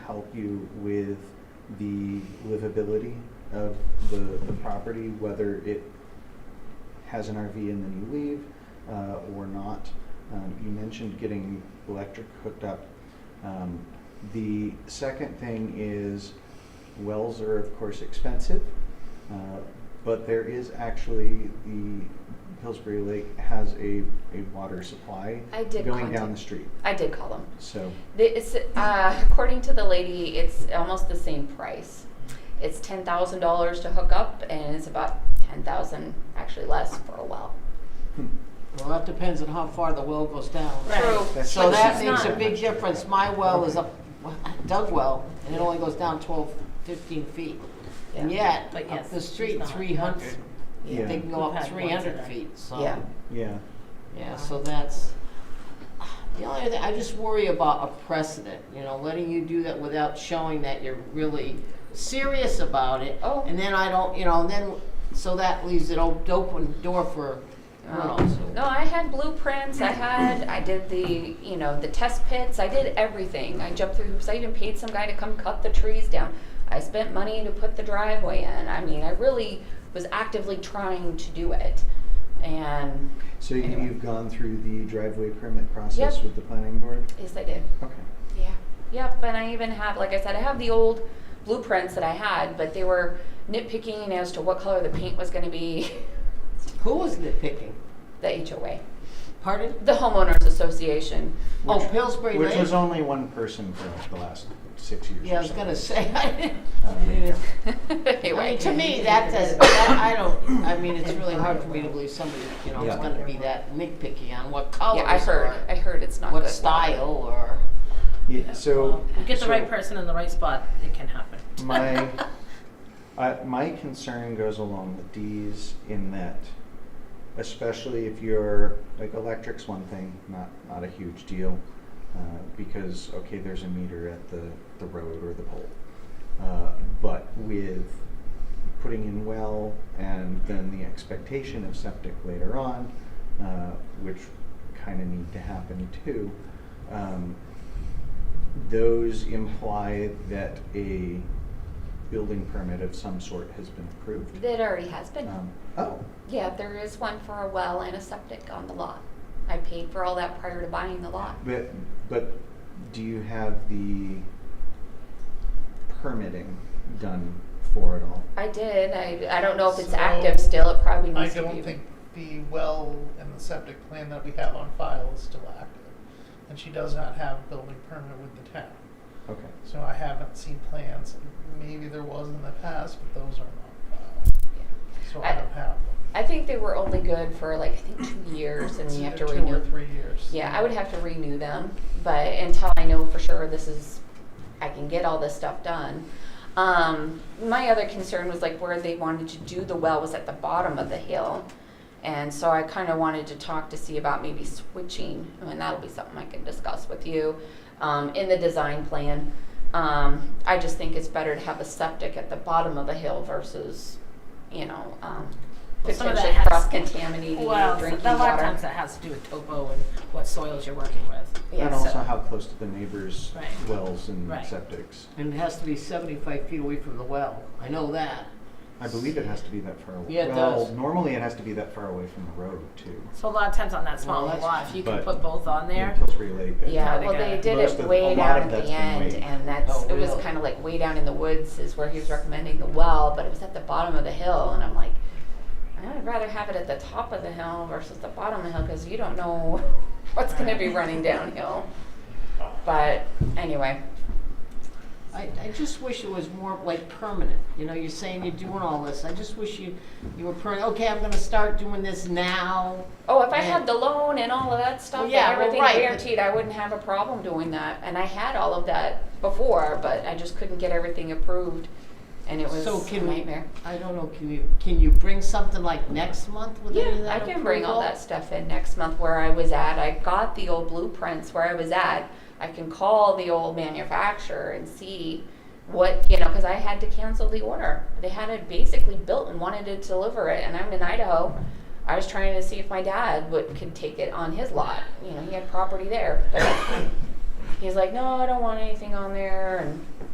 help you with the livability of the, the property, whether it has an RV and then you leave, uh, or not. Um, you mentioned getting electric hooked up. Um, the second thing is wells are of course expensive, uh, but there is actually the Pillsbury Lake has a, a water supply I did going contact- down the street. I did call them. So The- It's, uh, according to the lady, it's almost the same price. It's ten thousand dollars to hook up, and it's about ten thousand, actually less, for a well. Well, that depends on how far the well goes down. Right. True. That's So but that she's makes a not- big difference. My well is a dug well, and it only goes down 12, 15 feet. And yet, But up yes, the street, it's not 300, 100. Yeah. they can go We've up had one 300 today. feet, so. Yeah. yeah, Yeah, so that's, the only thing, I just worry about a precedent, you know, letting you do that without showing that you're really serious about it. Oh. And then I don't, you know, and then, so that leaves it op- open door for, who Oh. knows? Um, No, I had blueprints, I had, I did the, you know, the test pits, I did everything. I jumped through hoops, I even paid some guy to come cut the trees down. I spent money to put the driveway in. I mean, I really was actively trying to do it. And, so you, Anyway. you've gone through the driveway permit process Yep. with the planning board. yes, I did. Okay. Yeah. Yep. And I even have, like I said, I have the old blueprints that I had, but they were nitpicking as to what color the paint was going to be. Who was nitpicking? the HOA, Pardon? the homeowners association. Oh, Which- Pillsbury Which was Lake? only one person for like the last six years. Yeah, or I was so. gonna say. I Um, anyway, mean, to me, that does, that, I don't, I mean, it's really hard for me to believe somebody, you know, is Yeah. gonna be that nitpicky on what colors yeah, I heard. I or heard it's not what good. style or. yeah, Well, so if you get the so right person in the right spot, it can happen. My uh, my concern goes along with D's in that, especially if you're like electric's one thing, not not a huge deal, uh, because okay, there's a meter at the the road or the pole, uh, but with putting in well and then the expectation of septic later on, uh, which kind of need to happen too. Um, those imply that a building permit of some sort has been approved. That already has been. Um, Oh, yeah, there is one for a well and a septic on the lot. I paid for all that prior to buying the lot. but, but do you have the permitting done for it all? I did. I, I don't know if it's So, active still. It probably I needs to be. don't think the well and the septic plan that we have on file is still active. And she does not have a building permit with the town. Okay, So I haven't seen plans. Maybe there was in the past, but those are not on file. Yeah. So I I- don't have them. I think they were only good for like I think two years, and It's you have to either renew. Two or three years. Yeah, I would have to renew them, but until I know for sure this is, I can get all this stuff done. Um, my other concern was like where they wanted to do the well was at the bottom of the hill. And so I kind of wanted to talk to see about maybe switching, I mean, that'll be something I can discuss with you, um, in the design plan. Um, I just think it's better to have a septic at the bottom of the hill versus, you know, um, Well, some of that potentially has- cross-contaminating your Well, drinking so- water. a lot of times that has to do with topo and what soils you're working with. Yeah, and also so- how close to the neighbors' Right. wells and Right. septics. And it has to be seventy-five feet away from the well, I know that. I believe it has to be that far away. Yeah, it Well, does. normally it has to be that far away from the road too. So a lot of times on that small Well, that's- lot, if you can But- put both on there, In Pillsbury Lake. I Yeah, kinda well, they got did most it of- way a lot down of at the that's been end, way- and that's, Oh, it was really? kind of like way down in the woods is where he was recommending the well, but it was at the bottom of the hill, and I'm like, I'd rather have it at the top of the hill versus the bottom of the hill, because you don't know what's gonna be running downhill. But anyway, I, I just wish it was more like permanent, you know, you're saying you're doing all this, I just wish you, you were per, okay, I'm gonna start doing this now. oh, if I Yeah. had the loan and all of that stuff, Well, and yeah, well, everything right, but- guaranteed, I wouldn't have a problem doing that, and I had all of that before, but I just couldn't get everything approved, and it was So a can we, nightmare. I don't know, can you, can you bring something like next month with any Yeah, of that I can bring all approval? that stuff in next month where I was at. I got the old blueprints where I was at. I can call the old manufacturer and see what, you know, because I had to cancel the order. They had it basically built and wanted to deliver it, and I'm in Idaho. I was trying to see if my dad would, could take it on his lot. You know, he had property there. But he's like, no, I don't want anything on there, and